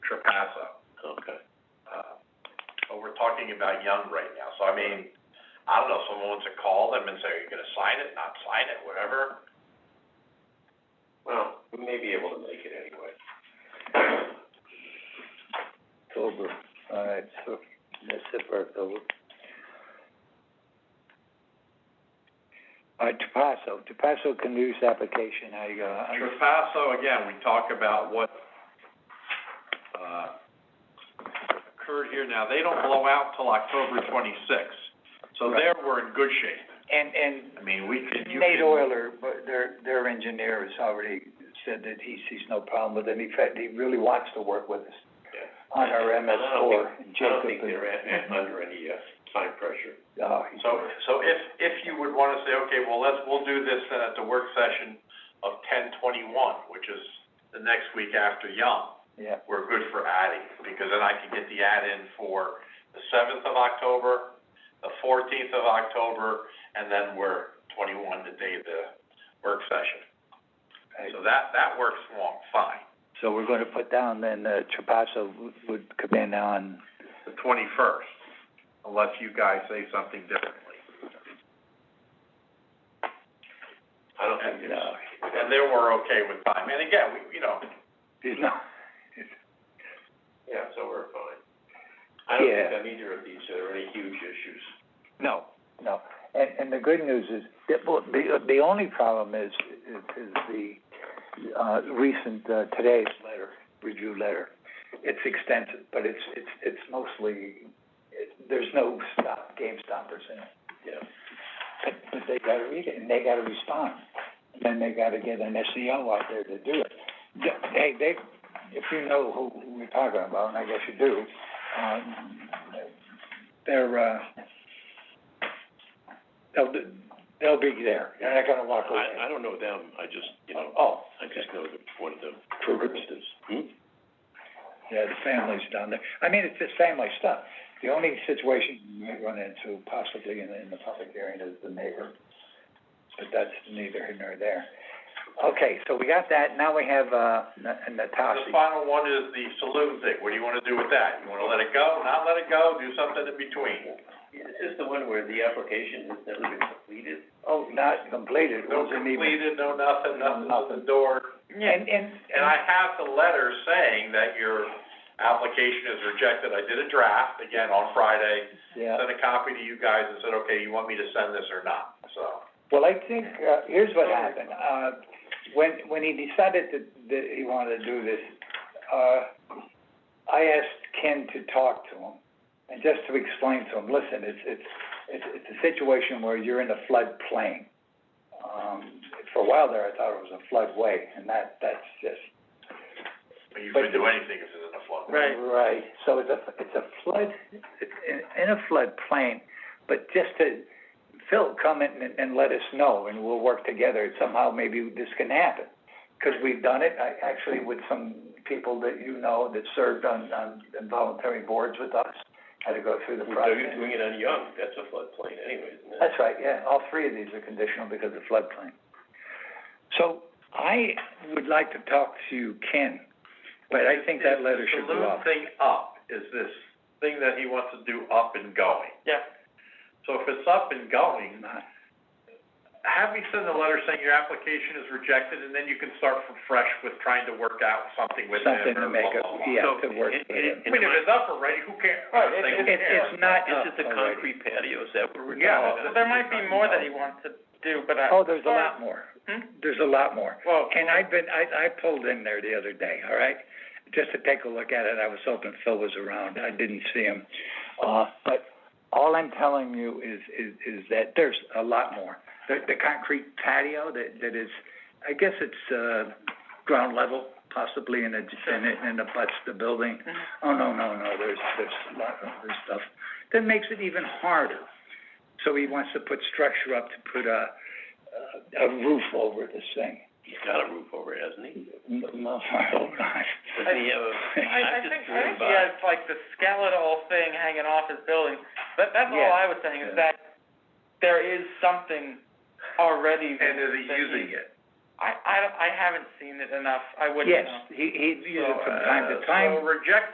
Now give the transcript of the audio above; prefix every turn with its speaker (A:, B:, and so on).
A: that's a,
B: Okay.
A: uh, but we're talking about young right now, so I mean, I don't know, if someone wants to call them and say, are you gonna sign it, not sign it, whatever.
B: Well, we may be able to make it anyway.
C: October, all right, so that's it for October. All right, Topasso, Topasso Canoes application, how you go?
A: Trapasso, again, we talk about what, uh, occurred here now, they don't blow out till October twenty-sixth, so there we're in good shape.
C: And, and
A: I mean, we could, you could.
C: Nate Euler, but their, their engineer has already said that he sees no problem with it. In fact, he really wants to work with us
B: Yeah.
C: on our MS
B: I
C: four,
B: don't think
C: Jacob.
B: they're at, at- under any, uh, time pressure.
C: Oh, he's-
A: So, so if, if you would wanna say, okay, well, let's, we'll do this then at the work session of ten twenty-one, which is the next week after Yum,
C: yeah,
A: we're good for adding, because then I can get the add-in for the seventh of October, the fourteenth of October, and then we're twenty-one the day of the work session.
C: right.
A: So that, that works along fine.
C: So we're gonna put down then, uh, Trapasso would- would come in on,
A: The twenty-first, unless you guys say something differently.
B: I don't think
C: and,
B: there's,
C: uh,
A: And then we're okay with time, and again, we, you know,
C: you know,
B: yeah, so we're fine. I don't think
C: Yeah.
B: on either of these there are any huge issues.
C: no, no. And, and the good news is, that, well, the, the only problem is, is is the, uh, recent, uh, today's letter, review letter. It's extensive, but it's, it's, it's mostly, it, there's no stop, game stoppers in it.
B: Yeah.
C: But, but they gotta read it, and they gotta respond, and then they gotta get an SEO out there to do it. The- They, they, if you know who who we're talking about, and I guess you do, um, they're, uh, they'll, do- they'll be there, they're not gonna walk away.
B: I, I don't know them, I just, you know,
C: Oh,
B: I just know the, one of the
C: Troopers.
B: instances. Hmm?
C: yeah, the family's down there, I mean, it's just family stuff. The only situation you might run into possibly in, in the public hearing is the neighbor, but that's neither here nor there. Okay, so we got that, now we have, uh, Na- Natasha.
A: The final one is the saloon thing, what do you wanna do with that? You wanna let it go, not let it go, do something in between?
B: Is this the one where the application has never been completed?
C: Oh, not completed,
A: No
C: wasn't even.
A: completed, no nothing, nothing on the door.
C: And, and.
A: And I have the letter saying that your application is rejected, I did a draft, again, on Friday,
C: Yeah,
A: sent a copy to you guys and said, okay, you want me to send this or not, so.
C: well, I think, uh, here's what happened, uh, when, when he decided that, that he wanted to do this, uh, I asked Ken to talk to him, and just to explain to him, listen, it's, it's, it's, it's a situation where you're in a floodplain. Um, for a while there, I thought it was a floodway, and that, that's just
A: But you could do anything if it's in a flood.
C: Right, so it's a, it's a flood, it's in, in a floodplain, but just to, Phil, come in and, and let us know, and we'll work together, somehow maybe this can happen. Because we've done it, I, actually with some people that you know that served on, on involuntary boards with us, had to go through the
B: Well, You're
C: process.
B: doing it on Young, that's a floodplain anyway, isn't it?
C: That's right, yeah, all three of these are conditional because of floodplain. So I would like to talk to Ken, but I think that letter should go
A: The
C: out.
A: saloon thing up is this thing that he wants to do up and going.
B: Yeah.
A: So if it's up and going, have me send a letter saying your application is rejected, and then you can start from fresh with trying to work out something with him
C: Something
A: or
C: to make
A: blah,
C: a-
A: blah, blah.
C: yeah,
A: So,
C: to work
B: it-
C: with
B: it-
A: I
C: it.
A: mean, if it's up already, who cares?
B: Right, it-
A: They don't
C: It,
A: care.
C: it's not
B: Is
C: up
B: it the
C: already.
B: concrete patio, is that what we're?
A: Yeah,
B: talking
A: so
B: about?
A: there might be more that he
D: wants to do, but I.
C: Oh, there's a
A: Uh,
C: lot more.
A: hmm?
C: There's a lot more.
D: Well,
C: And I've been, I, I pulled in there the other day, all right? Just to take a look at it. I was hoping Phil was around. I didn't see him. Uh, but all I'm telling you is, is, is that there's a lot more. The, the concrete patio that, that is, I guess it's, uh, ground level possibly and it, and it, and abuts the building.
A: hmm?
C: Oh, no, no, no, there's, there's a lot of other stuff. That makes it even harder. So he wants to put structure up to put a, a roof over this thing.
B: He's got a roof over it, hasn't he?
C: No, no, hold on.
B: Doesn't he have a?
D: I, I
B: I'm just
D: think, I
B: worried
D: think
B: about-
D: he has like the skeletal thing hanging off his building, but that's all
C: Yeah.
D: I was saying, is
C: Yeah.
D: that there is something already
A: And is he
D: that he-
A: using it?
D: I, I, don't- I haven't seen it enough, I wouldn't know. uh,
C: Yes, he, he uses it from time to time.
A: So reject